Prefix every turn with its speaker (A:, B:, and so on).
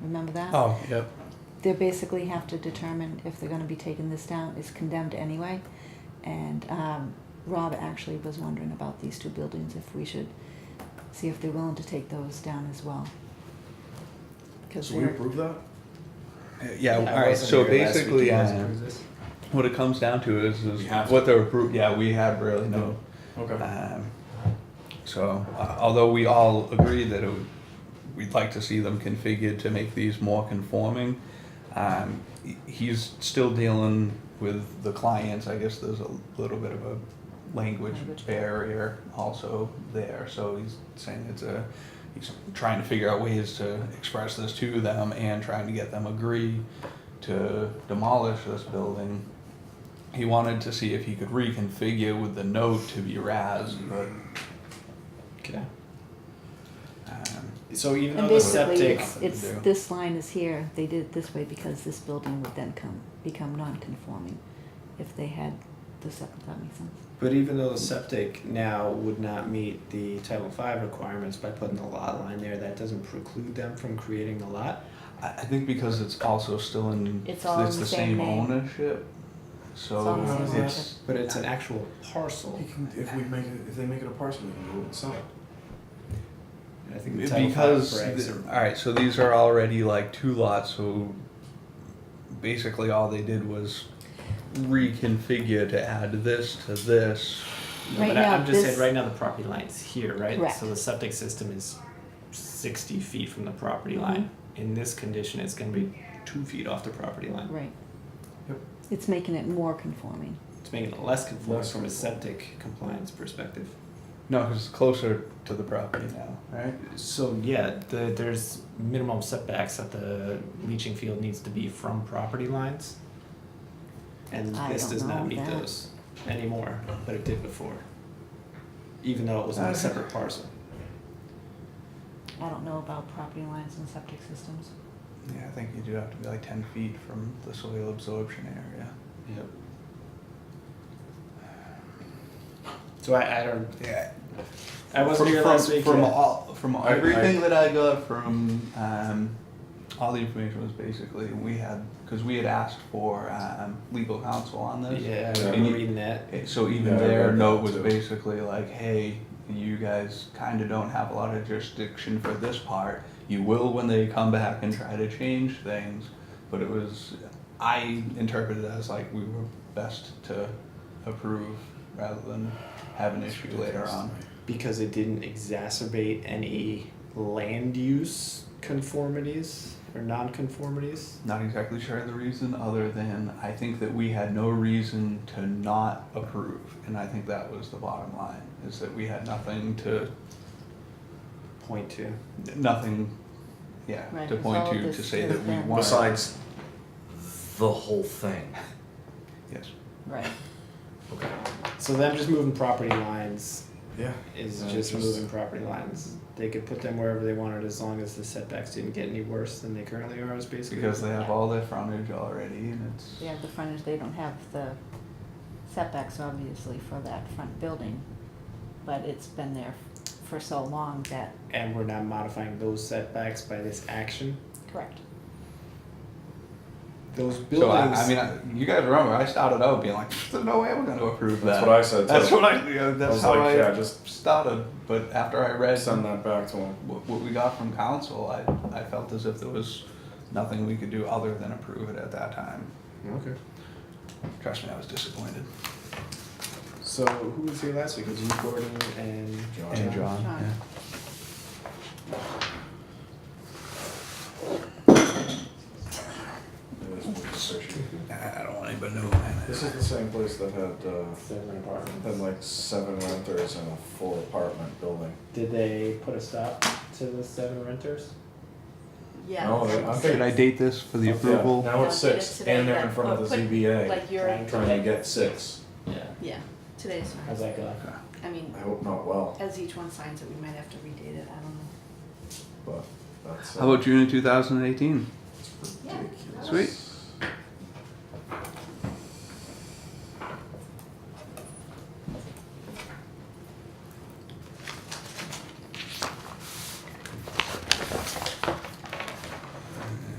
A: remember that?
B: Oh, yep.
A: They basically have to determine if they're gonna be taking this down, it's condemned anyway. And, um, Rob actually was wondering about these two buildings, if we should see if they're willing to take those down as well. Cause
C: So we
A: they're,
C: approve that?
B: Yeah, all right, so basically, um, what it comes down to is, is
C: We have
B: what the, appro- yeah, we have really no.
C: Okay.
B: um, So, uh, although we all agree that it would, we'd like to see them configured to make these more conforming, um, he- he's still dealing with the clients, I guess there's a little bit of a language
A: Language
B: barrier also there, so he's saying it's a, he's trying to figure out ways to express this to them and trying to get them agree to demolish this building. He wanted to see if he could reconfigure with the note to be RAS, but,
D: Okay.
B: um,
D: So even
A: and
D: though the
A: basically,
D: septic,
A: it's, it's,
B: Yeah.
A: this line is here, they did it this way because this building would then come, become non-conforming if they had the septic, that makes sense.
D: but even though the septic now would not meet the Title V requirements by putting the lot line there, that doesn't preclude them from creating the lot.
B: I, I think because it's also still in,
A: It's all in
B: the
A: the same
B: same
A: name.
B: ownership,
A: It's all in the
B: so
A: same
B: it's,
D: But it's an actual parcel.
C: He can, if we make it, if they make it a parcel, we can do it inside.
D: And I think the Title V
B: because,
D: regs
B: the-
D: are-
B: alright, so these are already like two lots, so basically all they did was reconfigure to add this to this.
D: No,
A: Right
D: but I-
A: now,
D: I'm just
A: this-
D: saying, right now the property line's here, right?
A: Correct.
D: So the septic system is sixty feet from the
A: Mm-hmm.
D: property line. In this condition, it's gonna be two feet off the property line.
A: Right.
C: Yep.
A: It's making it more conforming.
D: It's making it less conforming
C: Less
D: from a
C: conforming.
D: septic compliance perspective.
B: No, 'cause it's closer to the property now, right?
D: So yeah, the, there's minimum setbacks that the leaching field needs to be from property lines. And
A: I
D: this
A: don't
D: does
A: know
D: not meet
A: that.
D: those anymore, but it did before. Even though it was on a
B: Okay.
D: separate parcel.
A: I don't know about property lines and septic systems.
B: Yeah, I think you do have to be like ten feet from the soil absorption area.
D: Yep. So I, I don't,
B: Yeah,
D: I
B: from,
D: wasn't here
B: from,
D: last week.
B: from
D: yeah.
B: all from
C: I-
B: everything that I got from um, all the information was basically we had because we had asked for um, legal counsel on this.
D: Yeah, I
C: Yeah.
D: remember reading that.
B: It- Eh, So even
C: Yeah, I
B: their
C: read that
B: note was
C: too.
B: basically like, hey, you guys kind of don't have a lot of jurisdiction for this part. You will when they come back and try to change things, but it was I interpreted it as like we were best to approve rather than have an issue later on.
D: because it didn't exacerbate any land use conformities or nonconformities.
B: Not exactly sure of the reason, other than I think that we had no reason to not approve, and I think that was the bottom line, is that we had nothing to,
D: Point two.
B: nothing, yeah,
A: Right,
B: to
A: it's
B: point
A: all
B: to,
A: this
B: to say
A: is
B: that we
A: them.
B: wanted.
C: Besides-
E: the whole thing.
B: Yes,
A: Right.
E: Okay.
D: So them just moving property lines
C: Yeah.
D: is
C: Uh,
D: just,
C: just-
D: moving property lines. They could put them wherever they wanted as long as the setbacks didn't get any worse than they currently are. Is basically
B: because they have all their frontage already, and it's,
A: They have the frontage, they don't have the setbacks obviously for that front building, but it's been there for so long that.
D: and we're not modifying those setbacks by this action.
A: Correct.
D: Those
B: so I,
D: buildings.
B: I mean, I- you guys remember, I started out being like, there's no way we're gonna approve that.
C: That's what I said too.
B: That's what I, yeah, that's
C: was
B: how
C: like, yeah,
B: I
C: just-
B: started, but after I read
C: Send that back to him.
B: what, what we got from council, I, I felt as if there was nothing we could do other than approve it at that time.
D: okay.
B: Trust me, I was disappointed.
D: So who was here last week? It was you, Gordon, and
C: John.
B: And John,
A: John.
B: yeah. I I don't want anybody to know. man.
C: This is the same place that had, uh,
D: Seven apartments.
C: had like seven renters in a full apartment building.
D: Did they put a stop to the seven renters?
C: No, they- I'm
B: Should I date this for the
C: Yeah,
B: approval?
C: Now it's
F: Don't get
C: six,
F: it today,
C: and they're in
F: then.
C: front
F: Or
C: of the
F: put-
C: ZBA,
F: Like you're,
C: trying to get six.
D: Yeah.
F: yeah, today's,
D: How's that go?
F: I mean,
C: I hope not well,
F: as each one signs it, we might have to redate it, I don't know.
C: but that's. uh,
B: How about June of two thousand and eighteen?
C: ridiculous.
B: Sweet.